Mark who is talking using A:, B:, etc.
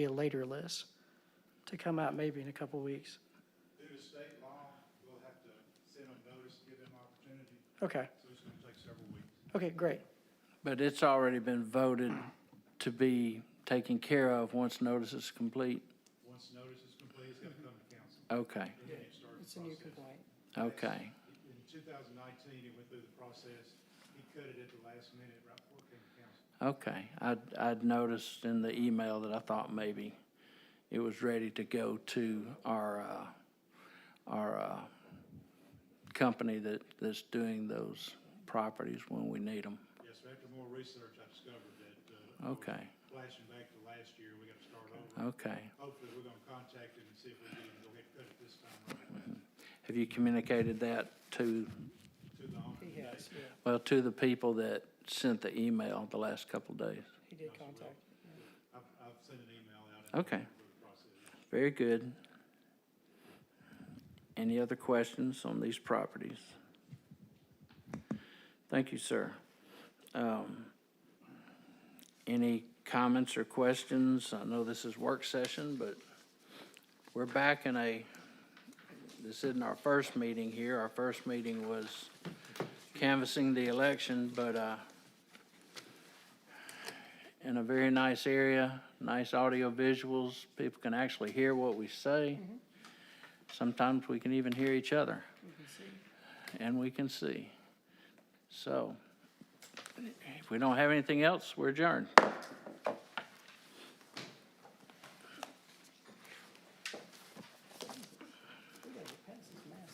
A: be a later list to come out maybe in a couple weeks.
B: Due to state law, we'll have to send them notice, give them opportunity,
A: Okay,
B: so it's gonna take several weeks.
A: okay, great.
C: But it's already been voted to be taken care of once notice is complete?
B: Once notice is complete, it's gonna come to council.
C: Okay,
B: and then you start the
A: It's a new
B: process.
A: complaint.
C: okay,
B: In two thousand nineteen, it went through the process, he cut it at the last minute, right before it came to council.
C: okay. I'd, I'd noticed in the email that I thought maybe it was ready to go to our, uh, our, uh, company that, that's doing those properties when we need them.
B: Yes, sir, after more research, I discovered that, uh,
C: Okay, Uh.
B: flashing back to last year, we gotta start over.
C: okay.
B: Hopefully, we're gonna contact him and see if we can go ahead and cut it this time right away
C: Have you communicated that to,
B: to the owner
A: He
B: today.
A: has, yeah,
C: well, to the people that sent the email the last couple of days?
A: he did contact.
B: I've, I've sent an email out. and
C: Okay.
B: for the process.
C: Very good. Any other questions on these properties? Thank you, sir. Um, Any comments or questions? I know this is work session, but we're back in a, this isn't our first meeting here. Our first meeting was canvassing the election, but uh, in a very nice area, nice audio visuals. People can actually hear what we say. Sometimes we can even hear each other. And we can see. So if we don't have anything else, we're adjourned.